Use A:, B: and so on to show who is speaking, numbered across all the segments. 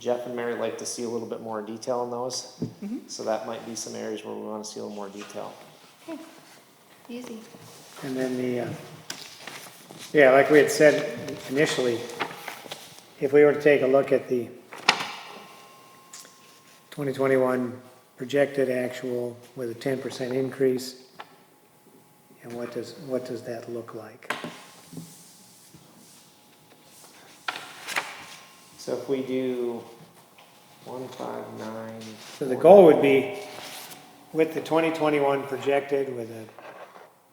A: Jeff and Mary like to see a little bit more detail on those. So that might be some areas where we wanna see a little more detail.
B: Easy.
C: And then the, uh, yeah, like we had said initially, if we were to take a look at the 2021 projected actual with a 10% increase, and what does, what does that look like?
A: So if we do one, five, nine.
C: So the goal would be with the 2021 projected with a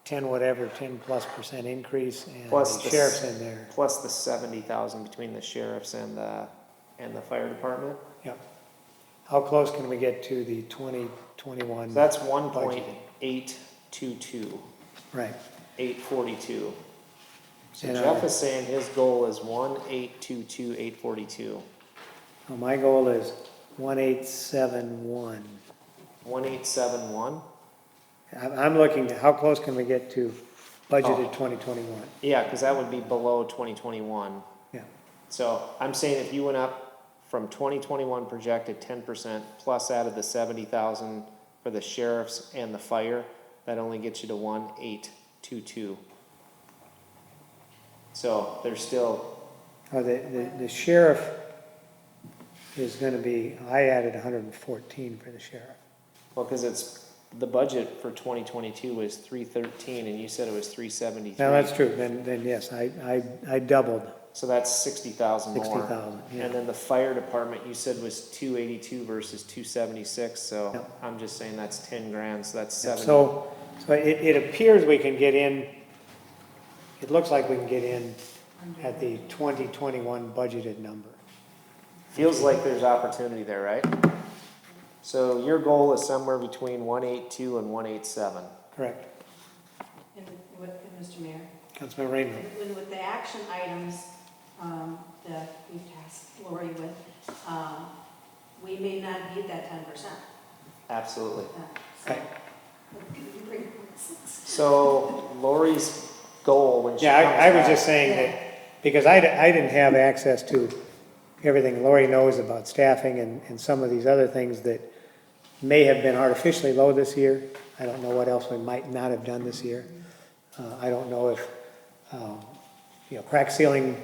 C: 10 whatever, 10 plus percent increase and
A: Plus the
C: the
A: s-
C: sheriff's in there.
A: Plus the seventy thousand between the sheriffs and the, and the fire department.
C: Yep. How close can we get to the 2021?
A: So that's one point eight two two,
C: Right,
A: eight forty-two. So
C: And, uh,
A: Jeff is saying his goal is one eight two two eight forty-two.
C: well, my goal is one eight seven one.
A: One eight seven one?
C: I'm, I'm looking, to how close can we get to budgeted
A: Oh.
C: twenty twenty-one?
A: Yeah, cause that would be below twenty twenty-one.
C: Yeah,
A: So I'm saying if you went up from twenty twenty-one projected ten percent plus added the seventy thousand for the sheriffs and the fire, that only gets you to one eight two two. So there's still,
C: oh, the, the, the sheriff is gonna be, I added hundred and fourteen for the sheriff.
A: well, cause it's, the budget for twenty twenty-two was three thirteen and you said it was three
C: Now, that's
A: seventy-three.
C: true, then, then yes, I, I, I doubled
A: So that's sixty thousand more.
C: sixty thousand,
A: And
C: yeah.
A: then the fire department, you said was two eighty-two versus two seventy-six, so
C: Yep.
A: I'm just saying that's ten grand, so that's seventy.
C: So, so it, it appears we can get in, it looks like we can get in at the twenty twenty-one budgeted number.
A: Feels like there's opportunity there, right? So your goal is somewhere between one eight two and one eight seven.
C: Correct,
D: And with, and Mr. Mayor,
C: Councilman Rainville.
D: and with the action items um, that we tasked Lori with, um, we may not need that ten percent. Uh,
A: Absolutely.
C: Okay.
A: So Lori's goal when she
C: Yeah, I, I
A: comes
C: was
A: back-
C: just saying that, because I, d- I didn't have access to everything Lori knows about staffing and, and some of these other things that may have been artificially low this year. I don't know what else we might not have done this year. Uh, I don't know if, um, you know, crack ceiling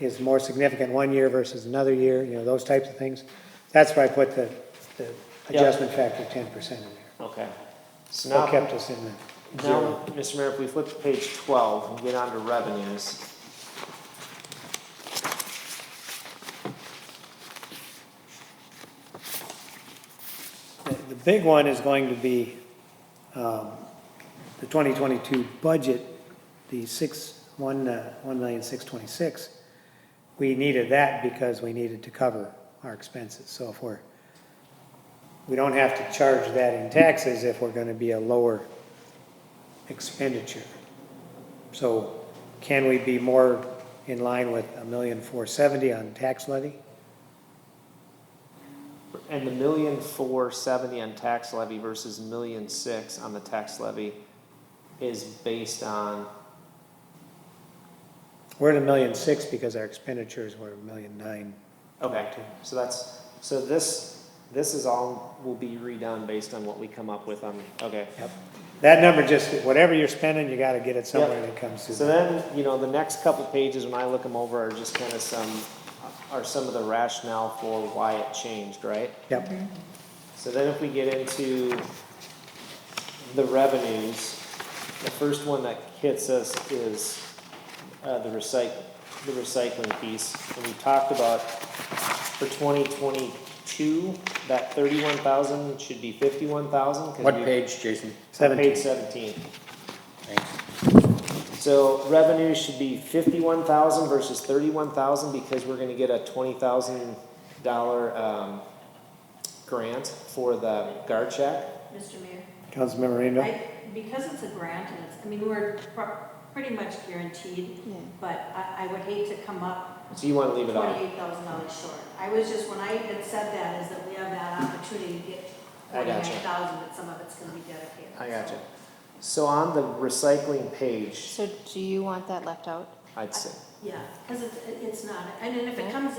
C: is more significant one year versus another year, you know, those types of things. That's where I put the, the
A: Yeah.
C: adjustment factor ten percent in there.
A: Okay. So
C: Still
A: now,
C: kept us in the
A: now,
C: zero.
A: Mr. Mayor, if we flip to page twelve and get on to revenues.
C: The the big one is going to be um, the 2022 budget, the six, one, uh, one million six twenty-six. We needed that because we needed to cover our expenses. So if we're, we don't have to charge that in taxes if we're going to be a lower expenditure. So can we be more in line with a million four seventy on tax levy?
A: And the million four seventy on tax levy versus million six on the tax levy is based on,
C: We're at a million six because our expenditures were a million nine.
A: okay. So that's, so this, this is all will be redone based on what we come up with on, okay.
C: Yep. That number just, whatever you're spending, you gotta get it somewhere that comes
A: So
C: to.
A: then, you know, the next couple pages, when I look them over, are just kind of some, are some of the rationale for why it changed, right?
C: Yep,
A: So then if we get into the revenues, the first one that hits us is, uh, the recyc, the recycling piece. And we talked about for twenty twenty-two, that thirty-one thousand should be fifty-one thousand.
E: What page, Jason?
A: Page
C: seventeen.
A: seventeen.
E: Thanks.
A: So revenue should be fifty-one thousand versus thirty-one thousand because we're gonna get a twenty thousand dollar, um, grant for the guard check.
D: Mr. Mayor,
C: Councilmember Rainville?
D: I, because it's a grant and it's, I mean, we're pr- pretty much guaranteed,
B: Yeah.
D: but I, I would hate to come up
A: So you wanna leave it on?
D: twenty-eight thousand dollars short. I was just, when I had said that, is that we have that opportunity to get
A: I
D: forty-nine
A: gotcha.
D: thousand, but some of it's gonna be dedicated.
A: I gotcha. So on the recycling page,
B: So do you want that left out?
A: I'd say.
D: also, äh, Yeah, because it's, it's not, and then if it comes